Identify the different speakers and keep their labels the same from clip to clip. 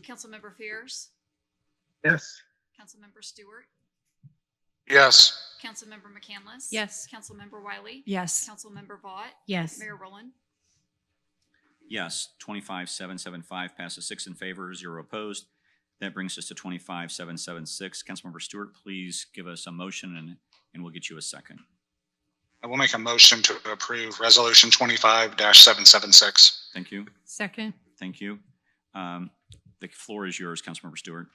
Speaker 1: Councilmember Fears,
Speaker 2: Yes.
Speaker 1: Councilmember Stewart,
Speaker 2: Yes.
Speaker 1: Councilmember McCandless.
Speaker 3: Yes.
Speaker 1: Councilmember Wiley.
Speaker 3: Yes.
Speaker 1: Councilmember Vaught.
Speaker 3: Yes.
Speaker 1: Mayor Rowland.
Speaker 4: Yes, twenty-five seven seven five passes six in favor, zero opposed. That brings us to twenty-five seven seven six. Councilmember Stewart, please give us a motion and, and we'll get you a second.
Speaker 2: I will make a motion to approve Resolution twenty-five seven seven six.
Speaker 4: Thank you,
Speaker 3: Second.
Speaker 4: thank you. Um, the floor is yours, Councilmember Stewart.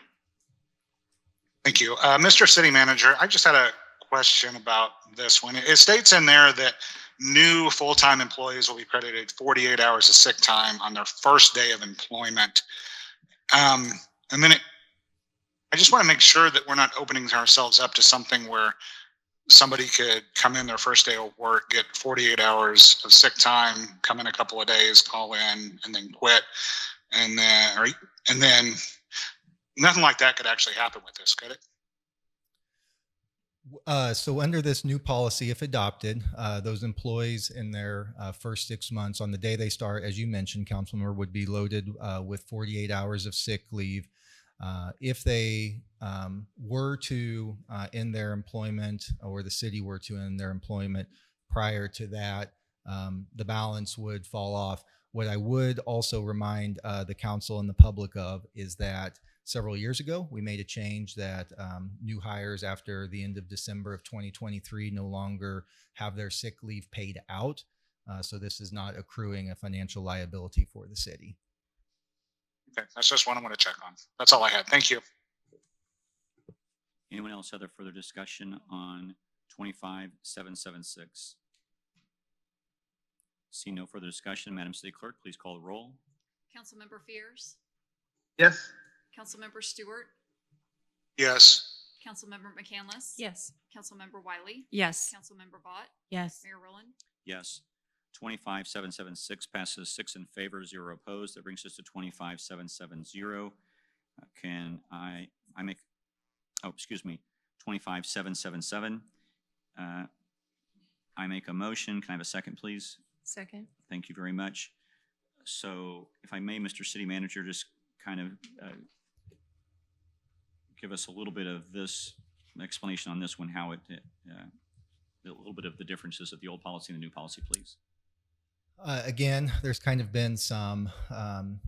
Speaker 2: Thank you. Uh, Mr. City Manager, I just had a question about this one. It states in there that new full-time employees will be credited forty-eight hours of sick time on their first day of employment. Um, and then it, I just want to make sure that we're not opening ourselves up to something where somebody could come in their first day of work, get forty-eight hours of sick time, come in a couple of days, call in, and then quit. And then, or, and then nothing like that could actually happen with this, could it?
Speaker 5: Uh, so under this new policy, if adopted, uh, those employees in their uh, first six months, on the day they start, as you mentioned, Councilmember, would be loaded uh, with 48 hours of sick leave. Uh, if they um, were to uh, end their employment, or the city were to end their employment prior to that, um, the balance would fall off. What I would also remind uh, the council and the public of is that several years ago. We made a change that um, new hires after the end of December of 2023 no longer have their sick leave paid out. Uh, so this is not accruing a financial liability for the city.
Speaker 2: Okay, that's just one I want to check on. That's all I had. Thank you.
Speaker 4: Anyone else have a further discussion on twenty-five seven seven six? See no further discussion. Madam City Clerk, please call the roll.
Speaker 1: Councilmember Fears,
Speaker 2: Yes.
Speaker 1: Councilmember Stewart,
Speaker 2: Yes.
Speaker 1: Councilmember McCandless.
Speaker 3: Yes.
Speaker 1: Councilmember Wiley.
Speaker 3: Yes.
Speaker 1: Councilmember Vaught.
Speaker 3: Yes.
Speaker 1: Mayor Rowland.
Speaker 4: Yes. Twenty-five seven seven six passes six in favor, zero opposed. That brings us to twenty-five seven seven zero. Uh, Can I, I make, oh, excuse me, twenty-five seven seven seven. Uh, I make a motion. Can I have a second, please?
Speaker 3: Second.
Speaker 4: Thank you very much. So if I may, Mr. City Manager, just kind of uh, give us a little bit of this explanation on this one, how it, uh, a little bit of the differences of the old policy and the new policy, please.
Speaker 5: Uh, again, there's kind of been some um,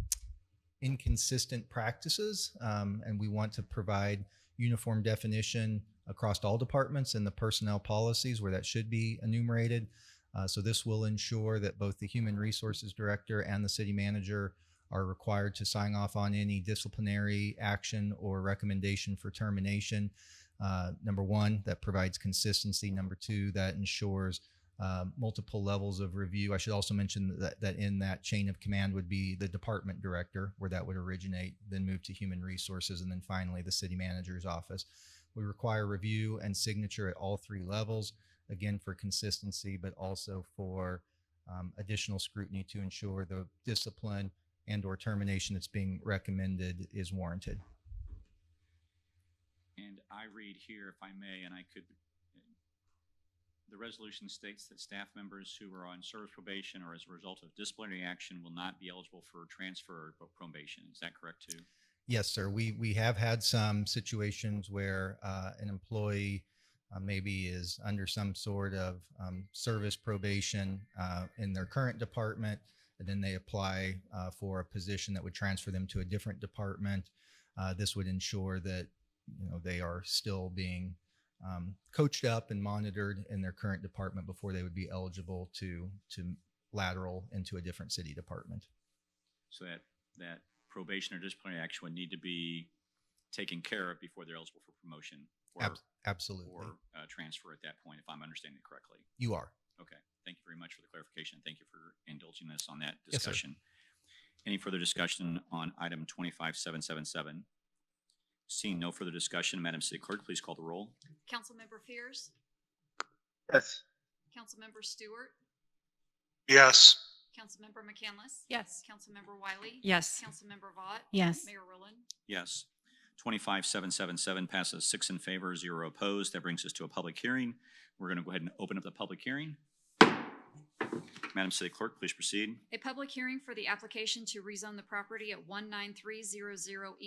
Speaker 5: inconsistent practices, um, and we want to provide uniform definition across all departments in the personnel policies where that should be enumerated. Uh, so this will ensure that both the human resources director and the city manager are required to sign off on any disciplinary action or recommendation for termination. Uh, number one, that provides consistency. Number two, that ensures uh, multiple levels of review. I should also mention that, that in that chain of command would be the department director, where that would originate, then move to human resources, and then finally the city manager's office. We require review and signature at all three levels, again for consistency, but also for um, additional scrutiny to ensure the discipline and/or termination that's being recommended is warranted.
Speaker 4: And I read here, if I may, and I could, uh, the resolution states that staff members who are on service probation or as a result of disciplinary action will not be eligible for transfer or probation. Is that correct too?
Speaker 5: Yes, sir. We we have had some situations where uh, an employee uh, maybe is under some sort of um, service probation uh, in their current department, and then they apply uh, for a position that would transfer them to a different department. Uh, this would ensure that you know they are still being um, coached up and monitored in their current department before they would be eligible to to lateral into a different city department.
Speaker 4: So that, that probation or disciplinary action would need to be taken care of before they're eligible for promotion or,
Speaker 5: Abs- Absolutely,
Speaker 4: or uh, transfer at that point, if I'm understanding it correctly.
Speaker 5: you are.
Speaker 4: Okay, thank you very much for the clarification. Thank you for indulging us on that
Speaker 5: Yes, sir.
Speaker 4: discussion. Any further discussion on item twenty-five seven seven seven? Seeing no further discussion, Madam City Clerk, please call the roll.
Speaker 1: Councilmember Fears,
Speaker 2: Yes.
Speaker 1: Councilmember Stewart,
Speaker 2: Yes.
Speaker 1: Councilmember McCandless.
Speaker 3: Yes.
Speaker 1: Councilmember Wiley.
Speaker 3: Yes.
Speaker 1: Councilmember Vaught.
Speaker 3: Yes.
Speaker 1: Mayor Rowland.
Speaker 4: Yes. Twenty-five seven seven seven passes six in favor, zero opposed. That brings us to a public hearing. We're going to go ahead and open up the public hearing. Madam City Clerk, please proceed.
Speaker 1: A public hearing for the application to rezone the property at one nine three zero E zero